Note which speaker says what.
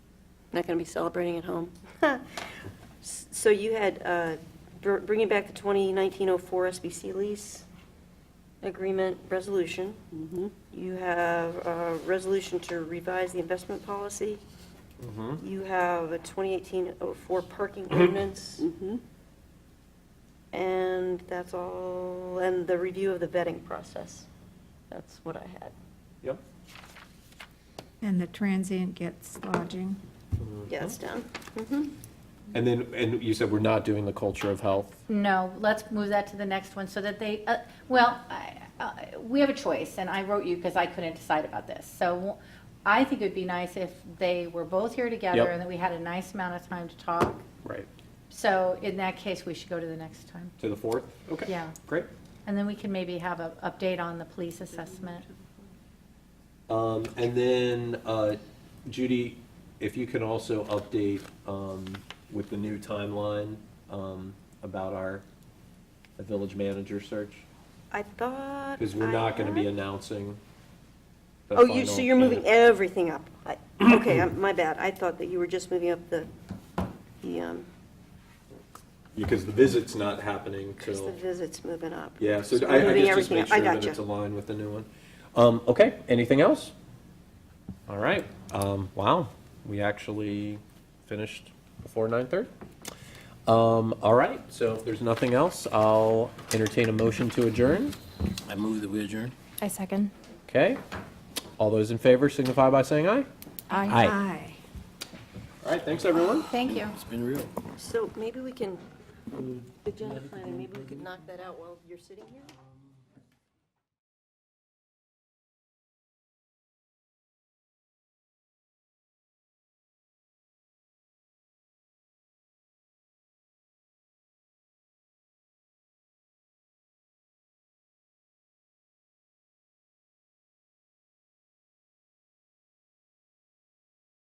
Speaker 1: not going to be celebrating at home.
Speaker 2: S- So you had, uh, br- bringing back the 2019-04 SBC lease agreement resolution. You have a resolution to revise the investment policy. You have a 2018-04 parking ordinance,
Speaker 1: Mm-hmm.
Speaker 2: and that's all, and the review of the vetting process. That's what I had.
Speaker 3: Yep.
Speaker 4: And the transient gets lodging.
Speaker 2: Yeah, it's
Speaker 3: Uh-huh.
Speaker 2: Mm-hmm. down.
Speaker 3: And then, and you said we're not doing the culture of health.
Speaker 5: No, let's move that to the next one so that they, uh, well, I- I- we have a choice, and I wrote you because I couldn't decide about this. So I think it'd be nice if they were both here together
Speaker 3: Yep.
Speaker 5: and that we had a nice amount of time to talk.
Speaker 3: Right.
Speaker 5: So in that case, we should go to the next time.
Speaker 3: To the fourth? Okay.
Speaker 5: Yeah.
Speaker 3: Great.
Speaker 5: And then we can maybe have an update on the police assessment.
Speaker 3: Um, and then, uh, Judy, if you can also update, um, with the new timeline, um, about our the village manager search,
Speaker 2: I thought.
Speaker 3: because we're
Speaker 2: I
Speaker 3: not gonna be
Speaker 2: had-
Speaker 3: announcing. the
Speaker 2: Oh, you,
Speaker 3: final
Speaker 2: so you're moving
Speaker 3: candidate.
Speaker 2: everything up? I- Okay, I'm- my bad. I thought that you were just moving up the, the, um,
Speaker 3: Because the visit's not happening till.
Speaker 2: because the visit's moving up.
Speaker 3: Yeah, so
Speaker 2: we're
Speaker 3: I, I
Speaker 2: moving
Speaker 3: guess just
Speaker 2: everything
Speaker 3: make
Speaker 2: up. I
Speaker 3: sure that
Speaker 2: gotcha.
Speaker 3: it's aligned with the new one. Um, okay, anything else? All right, um, wow, we actually finished before nine thirty. Um, all right, so if there's nothing else, I'll entertain a motion to adjourn.
Speaker 6: I move that we adjourn.
Speaker 7: I second.
Speaker 3: Okay, all those in favor signify by saying aye.
Speaker 7: Aye.
Speaker 4: Aye.
Speaker 3: All right, thanks, everyone.
Speaker 5: Thank you.
Speaker 6: It's been real.
Speaker 2: So maybe we can, agenda planning, maybe we could knock that out while you're sitting here?